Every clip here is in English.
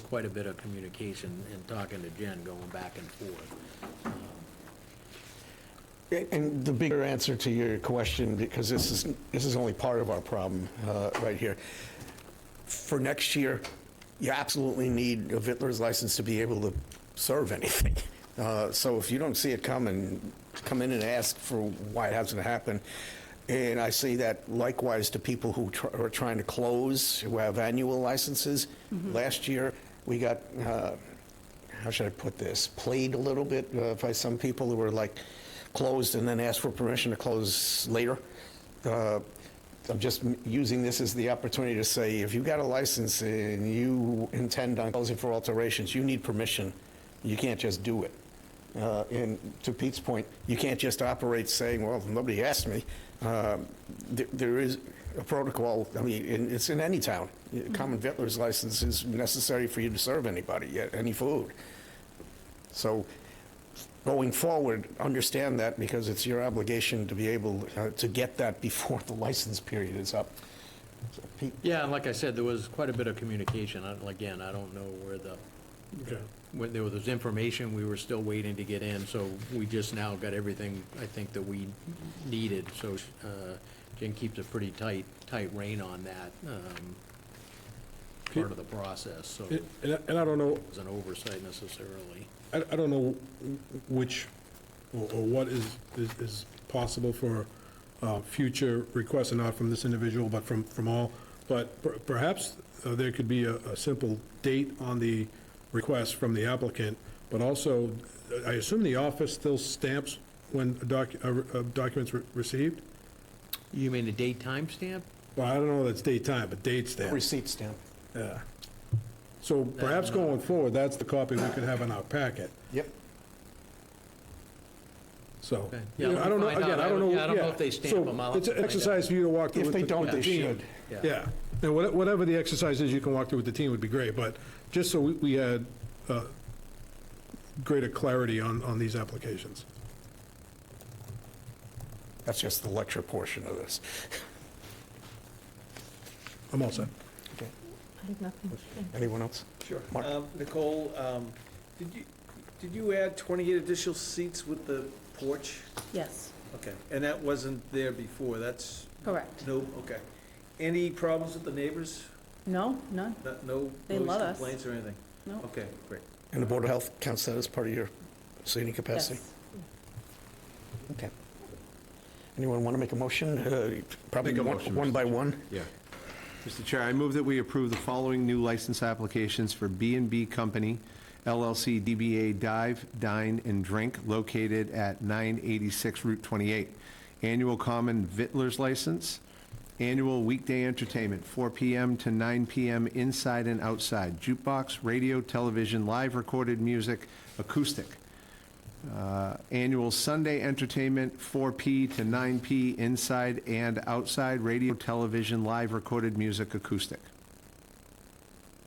quite a bit of communication and talking to Jen, going back and forth. Um, And the bigger answer to your question, because this is, this is only part of our problem uh, right here. For next year, you absolutely need a Vittler's license to be able to serve anything. Uh, So if you don't see it coming, come in and ask for why it hasn't happened. And I say that likewise to people who tr- are trying to close, who have annual licenses. Last year, we got uh, how should I put this, played a little bit uh, by some people who were like closed and then asked for permission to close later. Uh, I'm just m- using this as the opportunity to say, if you got a license and you intend on closing for alterations, you need permission. You can't just do it. Uh, And to Pete's point, you can't just operate saying, well, nobody asked me. Um, th- There is a protocol, I mean, and it's in any town. A Common Vittler's license is necessary for you to serve anybody, uh, any food. So going forward, understand that because it's your obligation to be able uh, to get that before the license period is up. So, Pete? Yeah, and like I said, there was quite a bit of communication. I- Again, I don't know where the, when there was information, we were still waiting to get in, so we just now got everything, I think, that we needed. So uh, Jen keeps a pretty tight, tight rein on that um, part of the process, so it And and I- and I don't know, was an oversight necessarily. I I don't know which, or or what is, is- is possible for uh, future requests, and not from this individual, but from, from all, but per- perhaps uh, there could be a a simple date on the request from the applicant, but also, uh, I assume the office still stamps when a doc- a re- a documents re- received? You mean the date timestamp? Well, I don't know that's date time, but date stamp. Receipt stamp. Yeah. So perhaps going forward, that's the copy we could have in our packet, Yep. so. Okay. you know, Yeah, I don't know, we'll find again, out. I don't know. Yeah, I don't know if they stamp So them. I'll have It's to an find out. exercise for you to walk through. If with they the- don't, the they team. should. Yeah, and what- whatever the exercise is you can walk through with the team would be great, but just so we- we had uh, greater clarity on, on these applications. That's just the lecture portion of this. I'm all set. I have nothing. Anyone else? Sure. Mark? Um, Nicole, um, did you, did you add 28 additional seats with the porch? Yes, Okay, and that wasn't there before, that's, correct. no, okay. Any problems with the neighbors? No, none, No- No They noise love us. complaints or anything? no. Okay, great. And the Board of Health counts that as part of your seating capacity? Yes. Okay. Anyone want to make a motion? Uh, Probably Make a one motion, one Mr. by one? Yeah. Mr. Chair, I move that we approve the following new license applications for b and b Company LLC DBA Dive, Dine, and Drink located at 986 Route 28. Annual common Vittler's license, annual weekday entertainment, 4 PM to 9 PM inside and outside, jukebox, radio, television, live recorded music, acoustic. Uh, Annual Sunday entertainment, 4P to 9P, inside and outside, radio, television, live recorded music, acoustic.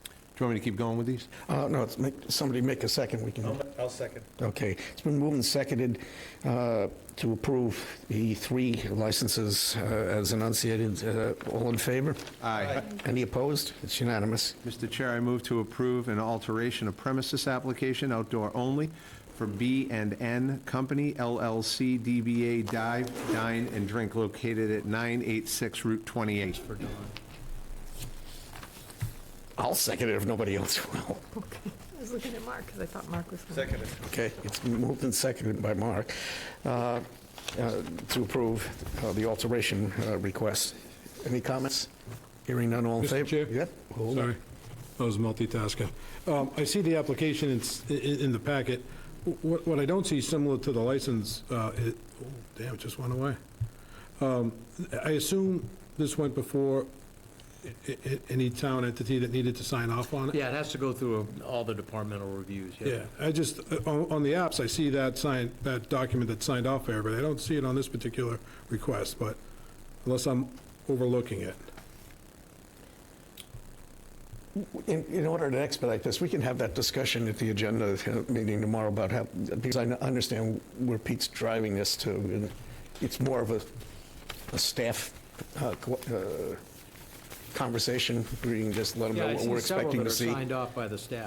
Do you want me to keep going with these? Uh, No, it's make, somebody make a second, we can, I'll I'll second. Oh. okay. It's been moved and seconded uh, to approve the three licenses uh, as enunciated. Uh, All in favor? Aye. Any opposed? It's unanimous. Mr. Chair, I move to approve an alteration of premises application, outdoor only, for B and N Company LLC DBA Dive, Dine, and Drink located at 986 Route 28. For Don. I'll second it if nobody else will. Okay, I was looking at Mark because I thought Mark was. gonna- Seconded. Okay, it's been moved and seconded by Mark uh, uh, to approve uh, the alteration uh, request. Any comments? Hearing none, all in Mr. favor? Chair? Yep. Hold on. Sorry, I was multitasking. Um, I see the application in, s- i- in the packet. Wh- What, what I don't see similar to the license, uh, it, oh, damn, it just went away. Um, I assume this went before i- i- any town entity that needed to sign off on it? Yeah, it has to go through all the departmental reviews, yeah. Yeah, I just, uh, on, on the apps, I see that sign, that document that's signed off there, but I don't see it on this particular request, but unless I'm overlooking it. In, in order to expedite this, we can have that discussion at the agenda uh, meeting tomorrow about how, because I understand where Pete's driving this to. and It's more of a, a staff uh, co- uh, conversation, reading, just let them Yeah, know I what see we're several expecting that to are see. Signed off by the staff.